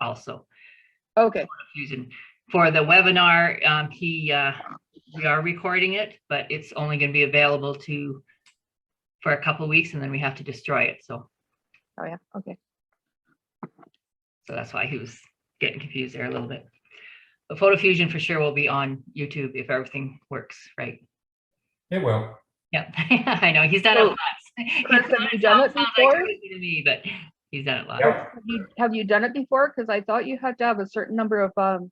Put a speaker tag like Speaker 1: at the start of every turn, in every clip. Speaker 1: also.
Speaker 2: Okay,
Speaker 1: Fusion. For the webinar, um, he, uh, we are recording it, but it's only going to be available to for a couple weeks and then we have to destroy it. So,
Speaker 2: oh yeah, okay.
Speaker 1: so that's why he was getting confused there a little bit. But Photo Fusion for sure will be on YouTube if everything works, right?
Speaker 3: It will.
Speaker 1: Yep, I know, he's done it
Speaker 2: So,
Speaker 1: lots. He's
Speaker 2: Chris, have
Speaker 1: Oh. done
Speaker 2: you
Speaker 1: it
Speaker 2: done
Speaker 1: sounds-
Speaker 2: it
Speaker 1: sounds like
Speaker 2: before?
Speaker 1: crazy To me, but he's done it lots.
Speaker 3: Yep.
Speaker 2: Have you, have you done it before? Because I thought you had to have a certain number of um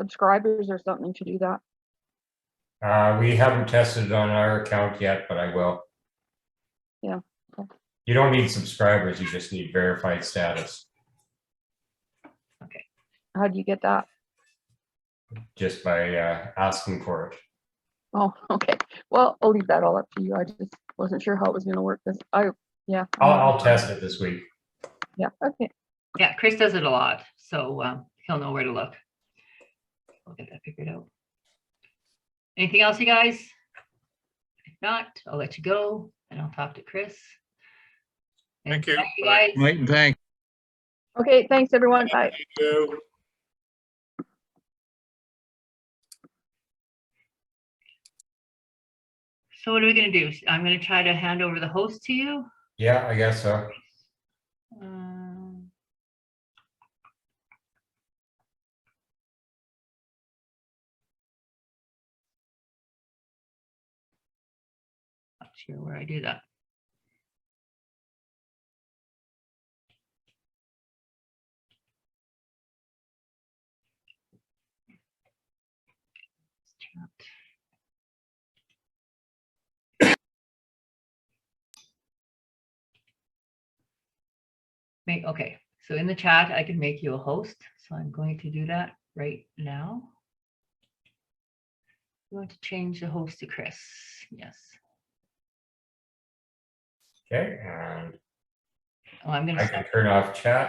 Speaker 2: subscribers or something to do that.
Speaker 3: Uh, we haven't tested it on our account yet, but I will.
Speaker 2: Yeah, okay.
Speaker 3: You don't need subscribers, you just need verified status,
Speaker 2: How do you get that?
Speaker 3: just by uh, asking for it.
Speaker 2: Oh, okay. Well, I'll leave that all up to you. I just wasn't sure how it was gonna work. Cause I, yeah.
Speaker 3: I'll, I'll test it this week.
Speaker 2: Yeah, okay.
Speaker 1: Yeah, Chris does it a lot, so um, he'll know where to look. We'll get that figured out. Anything else, you guys? If not, I'll let you go and I'll talk to Chris. And
Speaker 4: Thank you.
Speaker 1: thank You guys.
Speaker 5: Mike, thank
Speaker 2: Okay, thanks everyone. Bye.
Speaker 4: you.
Speaker 1: So what are we gonna do? I'm gonna try to hand over the host to you.
Speaker 3: Yeah, I guess so.
Speaker 1: Um, Not sure where I do that. Chat. Make, okay, so in the chat, I can make you a host, so I'm going to do that right now. You want to change the host to Chris, yes.
Speaker 3: Okay, and
Speaker 1: Oh, I'm gonna.
Speaker 3: I
Speaker 1: stop Oh,
Speaker 3: can turn off chat.